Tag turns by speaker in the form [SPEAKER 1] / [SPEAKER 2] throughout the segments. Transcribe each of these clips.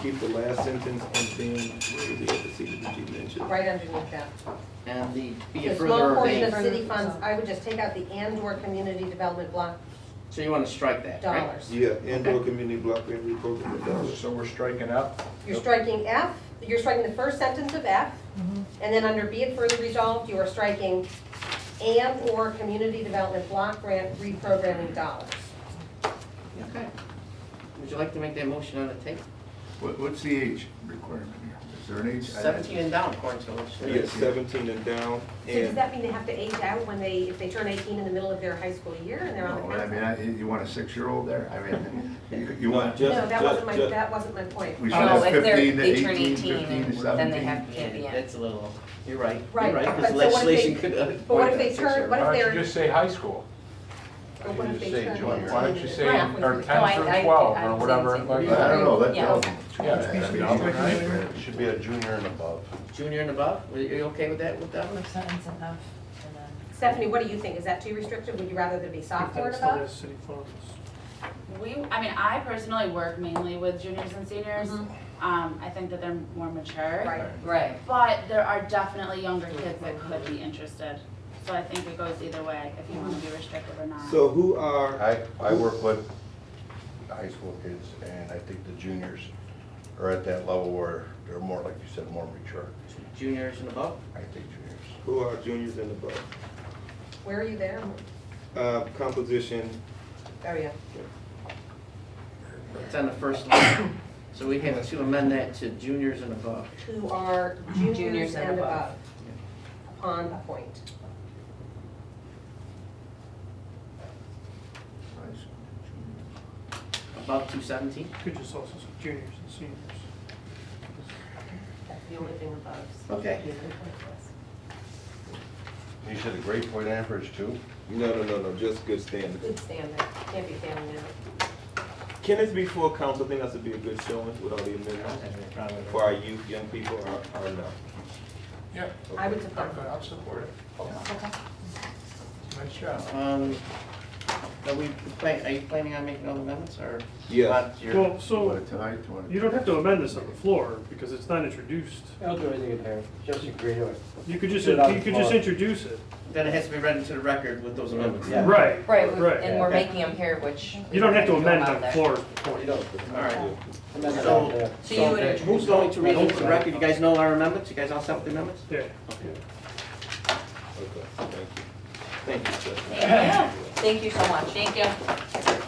[SPEAKER 1] keep the last sentence and then where is it at the C that you mentioned?
[SPEAKER 2] right underneath that.
[SPEAKER 3] And the, be
[SPEAKER 2] The
[SPEAKER 3] it
[SPEAKER 2] small
[SPEAKER 3] further
[SPEAKER 2] portion of
[SPEAKER 3] ordained,
[SPEAKER 2] city funds, I would just take out the and/or community development block
[SPEAKER 3] so you wanna strike that, right?
[SPEAKER 2] dollars.
[SPEAKER 1] Yeah, indoor community block grant reprogram for dollars.
[SPEAKER 4] So we're striking up?
[SPEAKER 2] You're striking F, you're striking the first sentence of F, and then under be it further resolved, you are striking and/or community development block grant reprogramming dollars.
[SPEAKER 3] Okay. Would you like to make that motion on the tape?
[SPEAKER 5] What, what's the age requirement here? Is there an age?
[SPEAKER 3] Seventeen and down, according to the legislature.
[SPEAKER 1] Yes, seventeen and down,
[SPEAKER 2] So does
[SPEAKER 1] and
[SPEAKER 2] that mean they have to age out when they, if they turn 18 in the middle of their high school year and they're on
[SPEAKER 5] No,
[SPEAKER 2] the
[SPEAKER 5] Oh, I mean,
[SPEAKER 2] council?
[SPEAKER 5] I, you want a six-year-old there? I mean, you, you
[SPEAKER 1] No,
[SPEAKER 5] want,
[SPEAKER 1] just-
[SPEAKER 2] No, that wasn't my,
[SPEAKER 1] just-
[SPEAKER 2] that wasn't my point.
[SPEAKER 5] we should
[SPEAKER 6] Oh,
[SPEAKER 5] have
[SPEAKER 6] if they're,
[SPEAKER 5] fifteen to
[SPEAKER 6] they turn
[SPEAKER 5] eighteen,
[SPEAKER 6] eighteen,
[SPEAKER 5] fifteen to
[SPEAKER 6] and then they have,
[SPEAKER 5] seventeen.
[SPEAKER 6] can't be
[SPEAKER 3] Yeah,
[SPEAKER 6] in.
[SPEAKER 3] that's a little, you're right,
[SPEAKER 2] Right,
[SPEAKER 3] you're right,
[SPEAKER 2] but
[SPEAKER 3] because
[SPEAKER 2] so what if they-
[SPEAKER 3] legislation could. uh,
[SPEAKER 2] But what
[SPEAKER 3] appoint
[SPEAKER 2] if they
[SPEAKER 3] a
[SPEAKER 2] turn,
[SPEAKER 3] six-year-old.
[SPEAKER 2] what if
[SPEAKER 4] Why don't you
[SPEAKER 2] they're,
[SPEAKER 4] just say high school?
[SPEAKER 2] But
[SPEAKER 4] Why
[SPEAKER 2] what
[SPEAKER 4] don't
[SPEAKER 2] if
[SPEAKER 4] you just
[SPEAKER 2] they
[SPEAKER 4] say
[SPEAKER 2] turn
[SPEAKER 4] junior?
[SPEAKER 2] 18?
[SPEAKER 4] Why don't you say,
[SPEAKER 6] Yeah, we
[SPEAKER 4] or
[SPEAKER 6] could- no, I-
[SPEAKER 4] ten
[SPEAKER 6] I-
[SPEAKER 4] through twelve,
[SPEAKER 6] I
[SPEAKER 4] or
[SPEAKER 6] was
[SPEAKER 4] whatever,
[SPEAKER 6] thinking-
[SPEAKER 5] I
[SPEAKER 4] like
[SPEAKER 5] don't know, that
[SPEAKER 6] Yeah.
[SPEAKER 5] tells them.
[SPEAKER 4] Yeah, I mean, I'll-
[SPEAKER 5] Right.
[SPEAKER 7] It should be a junior and above.
[SPEAKER 3] Junior and above, are you are you okay with that, with that one?
[SPEAKER 6] If something's enough, and then.
[SPEAKER 2] Stephanie, what do you think? Is that too restrictive? Would you rather there be sophomore above?
[SPEAKER 8] We, I mean, I personally work mainly with juniors and seniors.
[SPEAKER 2] Mhm.
[SPEAKER 8] Um, I think that they're more mature.
[SPEAKER 2] Right.
[SPEAKER 6] Right.
[SPEAKER 8] But there are definitely younger kids that could be interested. So I think it goes either way, if you wanna be restrictive or not.
[SPEAKER 1] so who are,
[SPEAKER 7] I, I work with high school kids, and I think the juniors are at that level where they're more, like you said, more mature.
[SPEAKER 3] Juniors and above?
[SPEAKER 7] I think juniors.
[SPEAKER 1] who are juniors and above?
[SPEAKER 2] Where are you there?
[SPEAKER 1] Uh, composition,
[SPEAKER 2] Oh, yeah.
[SPEAKER 3] It's on the first line. So we have to amend that to juniors and above.
[SPEAKER 2] Who are juniors and above upon a point.
[SPEAKER 3] Above two seventeen?
[SPEAKER 9] Could just also say juniors and seniors.
[SPEAKER 2] That's the only thing above.
[SPEAKER 3] Okay.
[SPEAKER 7] You said a grade point average too?
[SPEAKER 1] no, no, no, no, just good standing.
[SPEAKER 2] Good standard, can't be failing now.
[SPEAKER 1] Can this be full council? I think that would be a good showing with all the amendments for our youth, young people, or, or no?
[SPEAKER 4] yeah,
[SPEAKER 2] I would support.
[SPEAKER 4] I'm- I'll support it.
[SPEAKER 6] Okay.
[SPEAKER 4] Nice job.
[SPEAKER 3] Um, are we, plan- are you planning on making all the amendments or?
[SPEAKER 1] Yeah.
[SPEAKER 3] Not your-
[SPEAKER 9] Well,
[SPEAKER 5] Want
[SPEAKER 9] so
[SPEAKER 5] it tonight, you want it?
[SPEAKER 9] you don't have to amend this on the floor because it's not introduced.
[SPEAKER 10] I'll do anything in there, just agree to it.
[SPEAKER 9] You could just,
[SPEAKER 10] Do it on
[SPEAKER 9] you could
[SPEAKER 10] the
[SPEAKER 9] just
[SPEAKER 10] floor.
[SPEAKER 9] introduce it.
[SPEAKER 3] Then it has to be read into the record with those amendments.
[SPEAKER 10] Yeah.
[SPEAKER 9] Right.
[SPEAKER 6] Right, we-
[SPEAKER 9] Right.
[SPEAKER 6] and we're
[SPEAKER 3] Okay.
[SPEAKER 6] making them here, which. we
[SPEAKER 9] You don't have to
[SPEAKER 6] don't know
[SPEAKER 9] amend
[SPEAKER 6] about
[SPEAKER 9] on the
[SPEAKER 6] that.
[SPEAKER 9] floor is the
[SPEAKER 10] Well,
[SPEAKER 9] point.
[SPEAKER 10] you don't.
[SPEAKER 3] All right.
[SPEAKER 10] Amend it
[SPEAKER 3] So-
[SPEAKER 10] out there.
[SPEAKER 6] So you would,
[SPEAKER 3] Who's going to read into the record? You guys know our amendments? You guys all set with the amendments?
[SPEAKER 9] Yeah.
[SPEAKER 1] Okay, thank you. Thank you, Stephanie.
[SPEAKER 6] thank you, thank you so much. Thank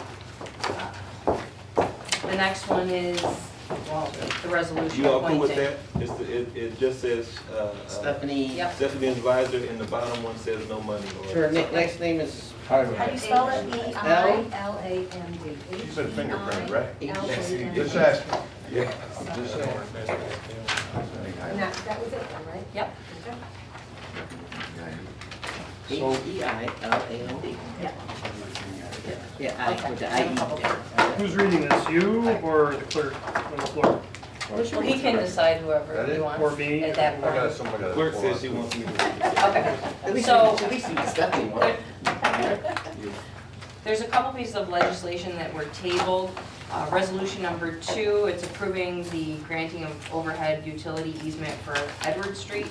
[SPEAKER 6] you. The next one is, well, the resolution appointing.
[SPEAKER 1] You all cool with that? It's, the- it, it just says, uh, uh,
[SPEAKER 3] Stephanie.
[SPEAKER 6] Yep.
[SPEAKER 1] Stephanie Advisor, and the bottom one says no money or.
[SPEAKER 3] Her na- last name is
[SPEAKER 2] How do you spell it? E I L A M D.
[SPEAKER 5] She said fingerprint, right?
[SPEAKER 2] E I L A M D.
[SPEAKER 5] Just asking. Yeah, I'm just saying.
[SPEAKER 2] And that, that was it, then, right?
[SPEAKER 6] Yep.
[SPEAKER 2] Okay.
[SPEAKER 3] H E I L A N D.
[SPEAKER 2] Yeah.
[SPEAKER 3] Yeah, I, with the I E there.
[SPEAKER 9] Who's reading this, you or the clerk on the floor?
[SPEAKER 6] Well, he can decide whoever
[SPEAKER 5] That
[SPEAKER 6] he
[SPEAKER 5] is-
[SPEAKER 6] wants.
[SPEAKER 9] or me,
[SPEAKER 6] At that
[SPEAKER 5] I
[SPEAKER 6] point.
[SPEAKER 5] got somebody that.
[SPEAKER 1] Clerk says she wants me to. read it.
[SPEAKER 6] Okay.
[SPEAKER 3] At least, you-
[SPEAKER 6] So-
[SPEAKER 3] at least you can step in one.
[SPEAKER 6] There's a couple pieces of legislation that were tabled. Uh, Resolution number two, it's approving the granting of overhead utility easement for Edward Street.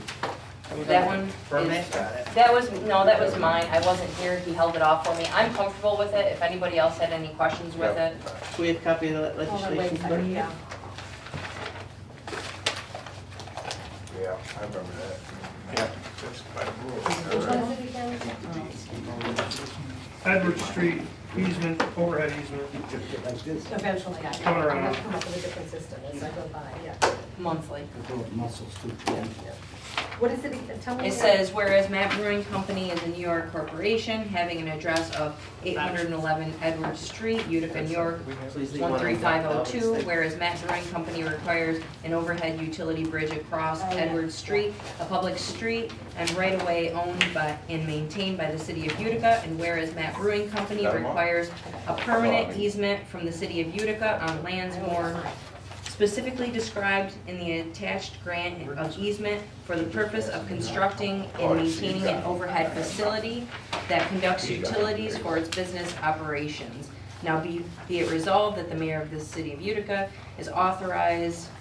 [SPEAKER 6] That one
[SPEAKER 3] From
[SPEAKER 6] is,
[SPEAKER 3] that, got it.
[SPEAKER 6] that was, no, that was mine, I wasn't here, he held it off for me. I'm comfortable with it, if anybody else had any questions with it.
[SPEAKER 3] Do we have a copy of the
[SPEAKER 2] Hold on, wait a
[SPEAKER 3] legislation?
[SPEAKER 2] second, yeah.
[SPEAKER 5] Yeah, I remember that.
[SPEAKER 4] Yeah, that's by the rule.
[SPEAKER 2] Which one's it again?
[SPEAKER 9] Edward Street easement, overhead easement.
[SPEAKER 2] Eventually, I, I'm
[SPEAKER 9] Coming around.
[SPEAKER 2] gonna come up with a different system as I go by, yeah.
[SPEAKER 6] Monthly.
[SPEAKER 2] What is it, tell me.
[SPEAKER 6] It
[SPEAKER 2] again.
[SPEAKER 6] says, whereas Matt Brewing Company is a New York corporation having an address of 811 Edward Street, Utica, New York,
[SPEAKER 3] Please leave one.
[SPEAKER 6] 13502, whereas Matt Brewing Company requires an overhead utility bridge across
[SPEAKER 2] Oh, yeah.
[SPEAKER 6] Edward Street, a public street, and right-of-way owned by and maintained by the city of Utica, and whereas Matt Brewing Company
[SPEAKER 5] Got 'em all?
[SPEAKER 6] requires a permanent easement from the city of Utica on lands more specifically described in the attached grant of easement for the purpose of constructing and maintaining an overhead facility that conducts utilities for its business operations. Now be, be it resolved that the mayor of the city of Utica is authorized